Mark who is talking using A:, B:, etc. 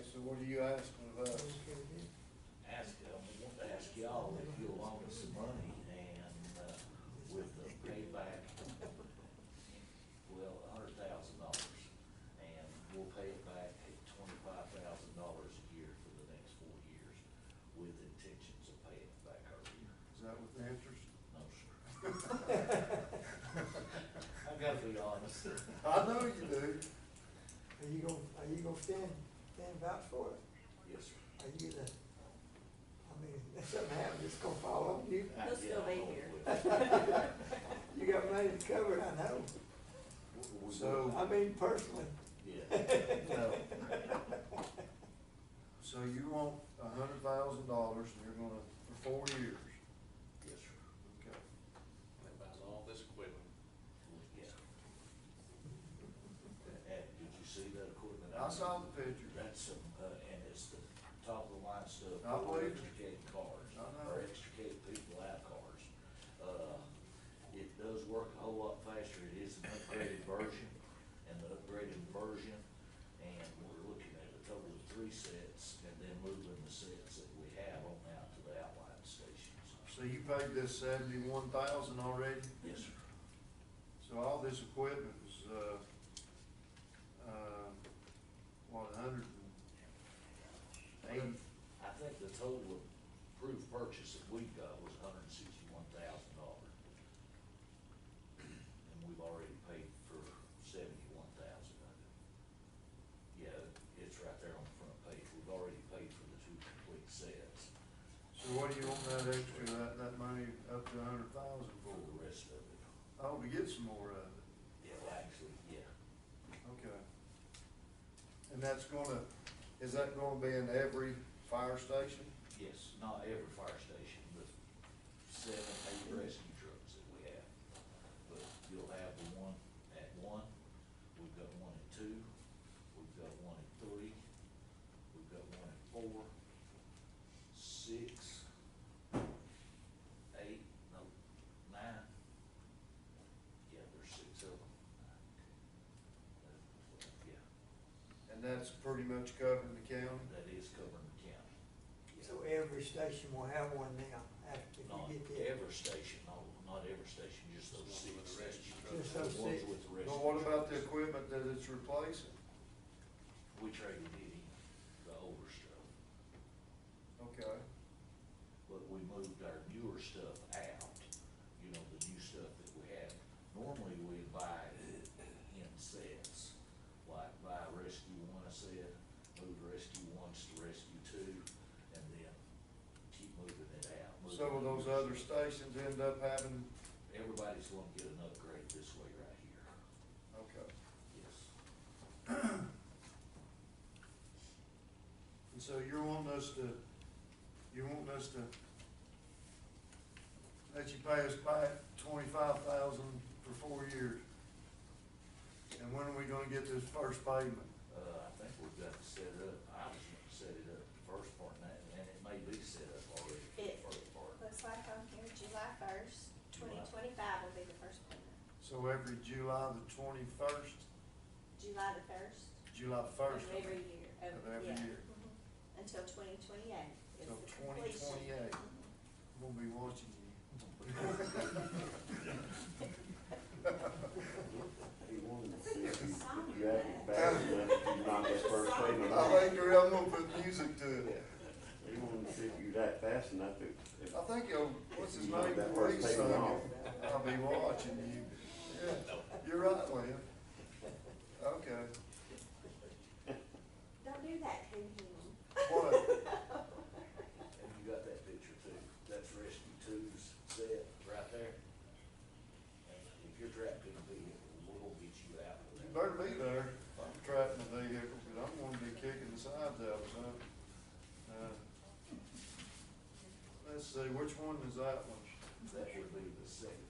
A: So what are you asking of us?
B: ask, uh, I want to ask y'all if you'll loan us some money and, uh, with the payback, well, a hundred thousand dollars. And we'll pay it back at twenty-five thousand dollars a year for the next four years with intentions of paying it back earlier.
A: Is that with the interest?
B: No, sir. I gotta be honest.
A: I know you do.
C: Are you gonna, are you gonna stand, stand vouch for it?
B: Yes, sir.
C: Are you gonna, I mean, if something happens, it's gonna fall on you.
B: I-
D: He'll still
B: yeah, I
D: be
B: know it
D: here.
B: will.
C: You got money to cover it, I know.
B: We- we-
A: So-
C: I mean, personally.
B: Yeah.
A: So you want a hundred thousand dollars and you're gonna, for four years?
B: Yes, sir.
A: Okay.
E: That buys all this equipment.
B: Yeah. And did you see that equipment?
A: I saw the picture.
B: That's some, uh, and it's the top of the line stuff.
A: I
B: for
A: believe it.
B: Extricating cars.
A: I know.
B: Or extricating people out of cars. Uh, it does work a whole lot faster. It is an upgraded version. And the upgraded version, and we're looking at a total of three sets and then moving the sets that we have on out to the outline stations.
A: So you paid this seventy-one thousand already?
B: Yes, sir.
A: So all this equipment is, uh, uh, what, a hundred and eighty?
B: I think the total approved purchase that we got was hundred and sixty-one thousand dollars. And we've already paid for seventy-one thousand of it. Yeah, it's right there on the front page. We've already paid for the two complete sets
A: So what do you want that extra, that, that money up to a hundred thousand
B: for the
A: for?
B: rest of it.
A: Oh, to get some more of it,
B: Yeah, well, actually, yeah.
A: okay. And that's gonna, is that gonna be in every fire station?
B: Yes, not every fire station, but seven, eight rescue trucks that we have. But you'll have the one at one, we've got one at two, we've got one at three, we've got one at four, six, eight, no, nine. Yeah, there's six of them. Uh, Yeah,
A: And that's pretty much covering the county?
B: that is covering the county. Yeah.
C: So every station will have one now, after if
B: Not
C: you get there.
B: every station, no, not every station, just those six
E: Just the ones with the rescue
B: stations.
E: trucks.
C: Just those
B: The ones
C: six.
B: with the
A: But
B: rescue
A: what about the
B: trucks.
A: equipment that it's replacing?
B: We traded it in, the older stuff,
A: Okay,
B: but we moved our newer stuff out, you know, the new stuff that we have. Normally, we buy it in sets, like buy rescue one a set, move rescue ones to rescue two, and then keep moving it out. moving
A: some of those
B: the newer
A: other
B: stuff.
A: stations end up having,
B: Everybody's gonna get an upgrade this way right here.
A: okay.
B: Yes.
A: And so you're wanting us to, you're wanting us to, let you pay us back twenty-five thousand for four years? And when are we gonna get this first payment?
B: Uh, I think we've got to set up, I was gonna set it up the first part, and that, and it may be set up already, for the
D: It
B: first part.
D: looks like on here, July first, twenty twenty-five will be the first payment.
A: So every July the twenty-first,
D: July the first.
A: July first.
D: Of every year.
A: Of every
D: yeah.
A: year.
D: Mhm. Until twenty twenty-eight is the
A: Till 2028. I'm
D: completion. Mhm.
A: gonna be watching
D: Something
F: You
D: like that.
F: act bad, if you not that first
A: you.
F: payment.
A: I think you're, I'm gonna put music to it.
F: They won't ship you that fast enough to, if,
A: I think, he'll- what's his
F: You know
A: name,
F: that first
A: Lee
F: payment
A: sung
F: off.
A: it. I'll be watching you. Yeah, you're right, Lynn. Okay,
D: Don't do that to him.
A: What?
B: And you got that picture too, that's rescue two's set right there. And if you're trapped in a vehicle, we'll get you out of
A: you
B: that.
A: better be there. I'm trapped in a vehicle, but I'm gonna be kicking the sides out, so. uh, Let's see, which one is that one?
B: That would be the second